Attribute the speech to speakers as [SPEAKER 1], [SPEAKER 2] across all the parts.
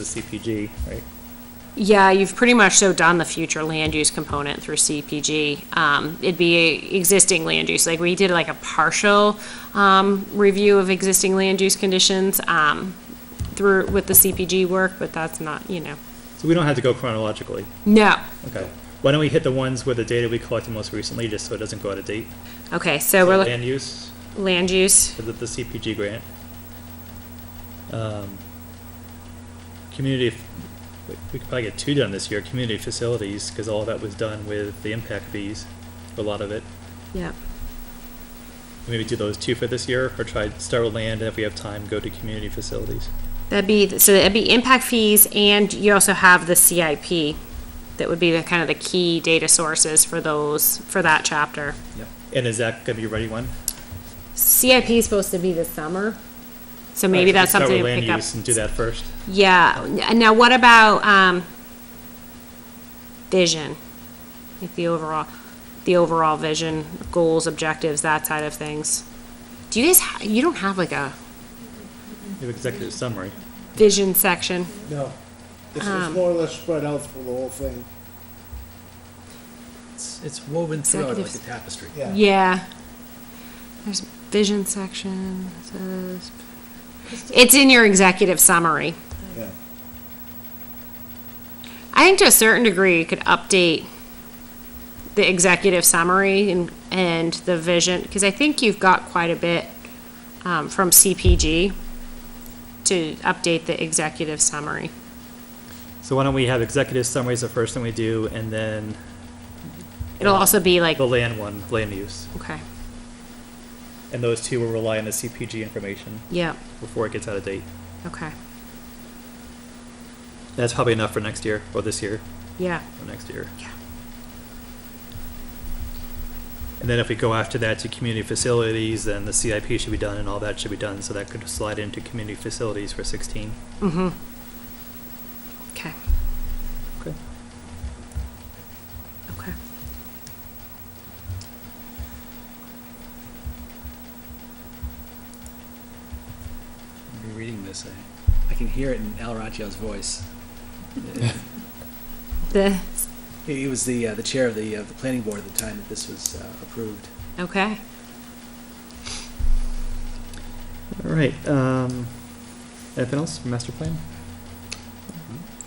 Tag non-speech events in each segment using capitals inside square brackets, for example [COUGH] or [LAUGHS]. [SPEAKER 1] the CPG, right?
[SPEAKER 2] Yeah, you've pretty much so done the future land use component through CPG. Um, it'd be existing land use, like we did like a partial, um, review of existing land use conditions, um, through, with the CPG work, but that's not, you know,
[SPEAKER 1] So we don't have to go chronologically.
[SPEAKER 2] no.
[SPEAKER 1] Okay. Why don't we hit the ones where the data we collected most recently, just so it doesn't go out of date?
[SPEAKER 2] Okay, so we're looking,
[SPEAKER 1] Land use
[SPEAKER 2] land use,
[SPEAKER 1] for the, the CPG grant. Um, Community, f- we- we could probably get two done this year, community facilities, because all that was done with the impact fees, a lot of it.
[SPEAKER 2] yeah.
[SPEAKER 1] Maybe do those two for this year, or try, start with land, and if we have time, go to community facilities.
[SPEAKER 2] That'd be, so that'd be impact fees, and you also have the CIP. That would be the, kind of the key data sources for those, for that chapter.
[SPEAKER 1] Yep. And is that gonna be ready one?
[SPEAKER 2] CIP is supposed to be this summer, so maybe
[SPEAKER 1] Alright,
[SPEAKER 2] that's
[SPEAKER 1] so we
[SPEAKER 2] something to
[SPEAKER 1] Start with
[SPEAKER 2] pick
[SPEAKER 1] land
[SPEAKER 2] up.
[SPEAKER 1] use and do that first.
[SPEAKER 2] Yeah, and now what about, um, vision? Like the overall, the overall vision, goals, objectives, that side of things. Do you guys, ha- you don't have like a
[SPEAKER 1] You have executive summary.
[SPEAKER 2] vision section?
[SPEAKER 3] No, this is more or less spread out through the whole thing,
[SPEAKER 4] It's, it's woven throughout like a
[SPEAKER 2] Executives.
[SPEAKER 4] tapestry.
[SPEAKER 3] yeah.
[SPEAKER 2] Yeah. There's vision section, it says- it's in your executive summary.
[SPEAKER 3] Yeah.
[SPEAKER 2] I think to a certain degree, you could update the executive summary and, and the vision, because I think you've got quite a bit, um, from CPG to update the executive summary.
[SPEAKER 1] So why don't we have executive summaries the first thing we do, and then
[SPEAKER 2] It'll also be like,
[SPEAKER 1] the land one, land use.
[SPEAKER 2] okay,
[SPEAKER 1] And those two will rely on the CPG information
[SPEAKER 2] yeah,
[SPEAKER 1] before it gets out of date.
[SPEAKER 2] okay,
[SPEAKER 1] That's probably enough for next year, or this year,
[SPEAKER 2] yeah,
[SPEAKER 1] or next year.
[SPEAKER 2] yeah.
[SPEAKER 1] And then if we go after that to community facilities, then the CIP should be done and all that should be done, so that could slide into community facilities for sixteen.
[SPEAKER 2] Mm-hmm. Okay,
[SPEAKER 1] Okay.
[SPEAKER 2] okay.
[SPEAKER 4] I'll be reading this. I, I can hear it in Al Raggio's [LAUGHS] voice.
[SPEAKER 2] The,
[SPEAKER 4] He he was the, uh, the chair of the, uh, the planning board at the time that this was uh, approved.
[SPEAKER 2] okay.
[SPEAKER 1] All right, um, anything else for master plan?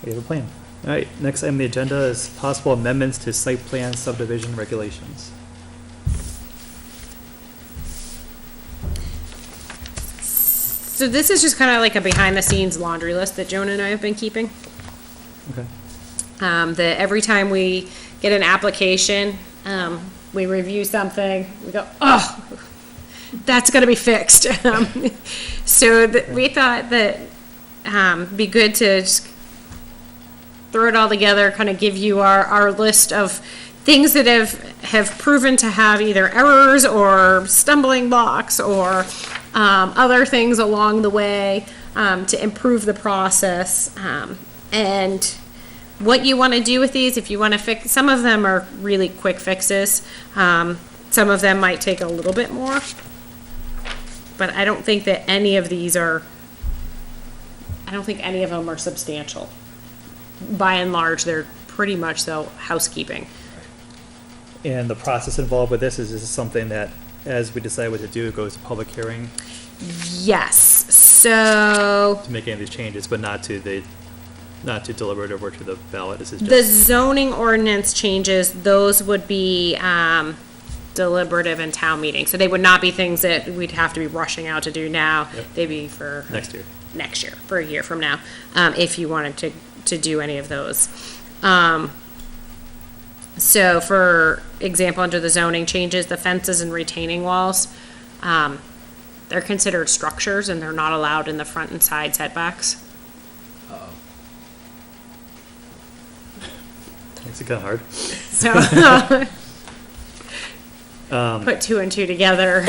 [SPEAKER 1] We have a plan. All right, next item on the agenda is possible amendments to site plan subdivision regulations.
[SPEAKER 2] So this is just kind of like a behind-the-scenes laundry list that Joan and I have been keeping.
[SPEAKER 1] Okay.
[SPEAKER 2] Um, that every time we get an application, um, we review something, we go, oh, that's gonna be fixed. [LAUGHS] Um, So that, we thought that, um, be good to just throw it all together, kind of give you our, our list of things that have, have proven to have either errors or stumbling blocks or um, other things along the way um, to improve the process. Um, and what you want to do with these, if you want to fix, some of them are really quick fixes. Um, some of them might take a little bit more. But I don't think that any of these are, I don't think any of them are substantial by and large, they're pretty much so housekeeping.
[SPEAKER 1] And the process involved with this is this is something that, as we decide what to do, it goes to public hearing
[SPEAKER 2] Yes, so
[SPEAKER 1] to make any of these changes, but not to the, not to deliberative or to the ballot. This is
[SPEAKER 2] the
[SPEAKER 1] just,
[SPEAKER 2] zoning ordinance changes, those would be, um, deliberative and town meeting. So they would not be things that we'd have to be rushing out to do now.
[SPEAKER 1] Yep.
[SPEAKER 2] They'd be for.
[SPEAKER 1] Next year.
[SPEAKER 2] Next year, for a year from now, um, if you wanted to, to do any of those. Um, so for example, under the zoning changes, the fences and retaining walls, um, they're considered structures and they're not allowed in the front and side setbacks.
[SPEAKER 1] it's kind of hard.
[SPEAKER 2] So, put two and two together,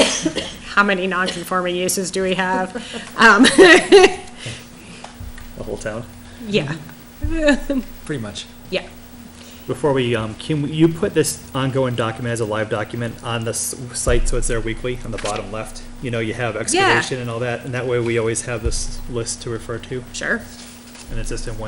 [SPEAKER 2] how many non-conforming uses do we have? Um, [LAUGHS]
[SPEAKER 1] The whole town.
[SPEAKER 2] yeah,
[SPEAKER 4] Pretty much.
[SPEAKER 2] yeah,
[SPEAKER 1] Before we, um, can we- you put this ongoing document as a live document on the s- site, so it's there weekly, on the bottom left? You know, you have excavation and all that, and that way we always have this list to refer to.
[SPEAKER 2] sure.
[SPEAKER 1] and it's just in one